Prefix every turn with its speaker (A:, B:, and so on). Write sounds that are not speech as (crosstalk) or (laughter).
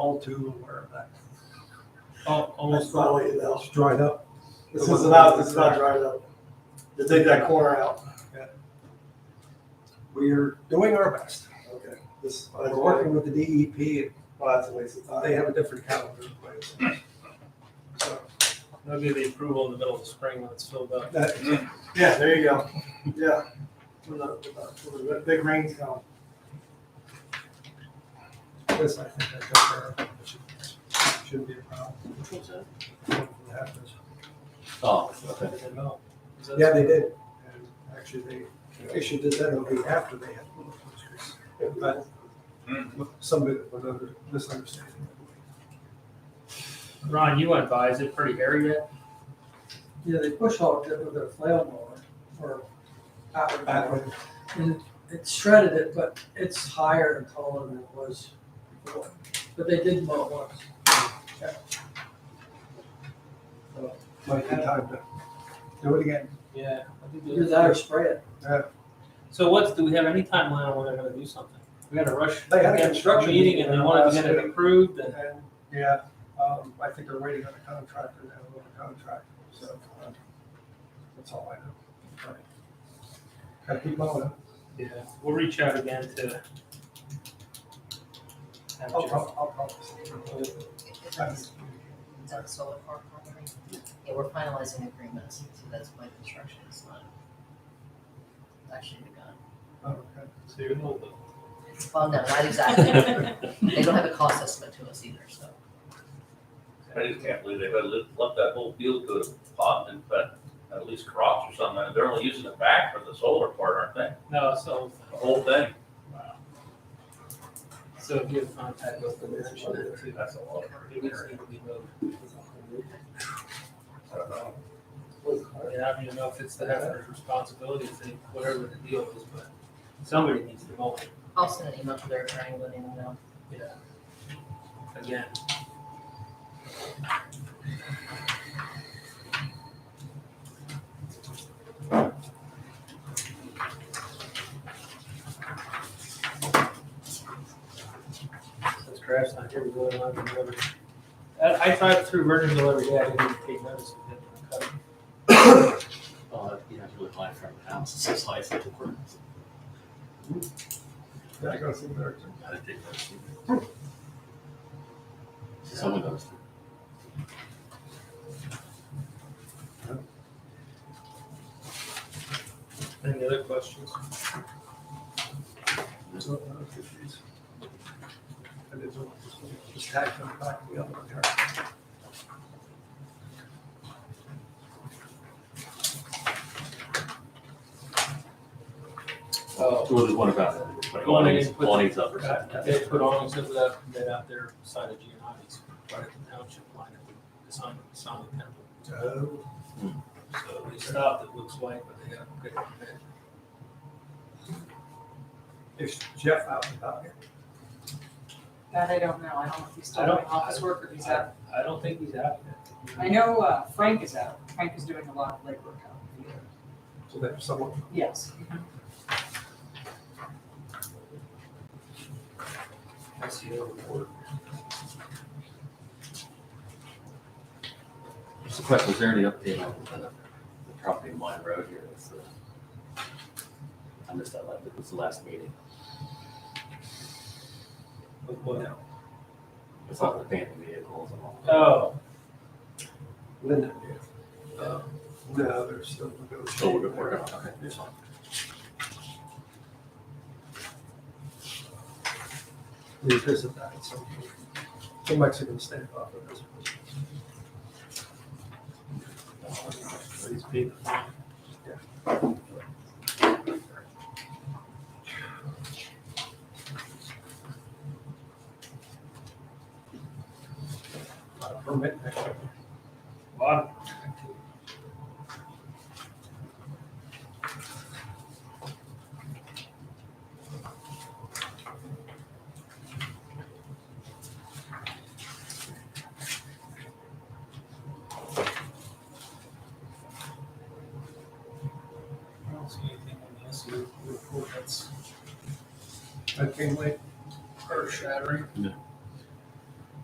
A: all too aware of that. (laughs) Al-
B: Almost
A: Almost all,
B: probably, no.
A: it's dried up.
B: This is not, this is not dried up. Just take that corner out.
A: We're doing our best.
B: Okay. This,
A: We're working with the DEP,
B: Well, that's a waste of
A: and
B: time.
A: uh, they have a different calendar in place. So,
C: That'll be the approval in the middle of spring when it's filled up.
A: that-
B: Yeah, there you go. Yeah. When the, when the big rains come.
A: This, I think, that's up there. It should- Shouldn't be a problem. Hopefully it happens.
D: Oh, okay.
C: Is that-
A: Yeah, they did. And Actually, they issued this, that'll be after they had. But some of it was under misunderstanding.
C: Ron, you went by, is it pretty hairy yet?
E: Yeah, they push hogged it with their flail mower or outward
A: Back
E: mower.
A: when
E: And it shredded it, but it's higher and taller than it was before. But they did mow it once.
A: might be time to do it again.
C: Yeah.
E: Either that or spray it.
C: So what's, do we have any timeline on when they're gonna do something? We had a rush, we
A: They had
C: had
A: a
C: a
A: construction
C: meeting and they
A: meeting
C: wanted to
A: last
C: get it
A: week.
C: approved and.
A: And, yeah, um, I think they're waiting on a contractor to have a contract, so, uh, that's all I know. Gotta keep going.
C: Yeah, we'll reach out again to. have
A: I'll,
C: Jeff-
A: I'll, I'll probably.
F: Is that the solar farm property? Yeah, we're finalizing agreements, so that's why construction is not actually begun.
A: Okay.
C: So you're a little bit-
F: Well, no, not exactly. They don't have a cost estimate to us either, so.
D: I just can't believe they've left that whole field to a pot and put at least crops or something. And They're only using the back for the solar part, aren't they?
C: No, so,
D: The whole thing.
C: so if you have contact with the commissioner too.
D: That's a lot.
C: It needs to be moved.
D: I don't know.
C: And I don't even know if it's the Hefner's responsibility, if they, whatever the deal is, but somebody needs to mow it,
F: I'll send an email to their um, attorney, letting them know.
C: yeah. Again. Since Craft's not here, we really don't have to deliver. I, I drive through Virginville every day, I didn't even take notice of it. cut.
G: Well, you know, if you live life from the house, it's just life at the work.
A: Yeah, I gotta see there too.
G: Gotta take that shit. Someone goes through.
C: Any other questions?
A: There's no other issues. And it's all just- just tack them back to the other one here.
C: Oh.
G: Well, there's one about that.
C: Go on
G: One needs,
C: and put-
G: one needs upper side.
C: They put on, so that, that out there side of Giovanni's, right at the township line, it would, it's on, it's on the temple.
A: So,
C: So they stopped, it looks like, but they got a good event.
A: Is Jeff out and about here?
H: That I don't know. I don't know if he's still
C: I don't-
H: doing office work or if he's out.
C: I don't think he's out
H: I
C: yet.
H: know uh, Frank is out. Frank is doing a lot of legwork out here.
A: So there's someone,
H: Yes.
C: I see it over there.
G: Just a question, is there any update on the, the property in Wine Road here? It's the- I missed that, last- it was the last meeting.
C: Look what now.
G: It's all the abandoned vehicles and all.
C: Oh,
A: Linda, yeah.
G: Uh,
A: No, they're still
G: So we're,
A: negotiating.
G: we're gonna, okay, it's fine.
A: We visit that at some point. The Mexican standoff. it was-
C: he's big.
A: uh, Permit.
C: Lot. I don't see anything on the SU report that's
A: I came late.
C: earth shattering.
G: No.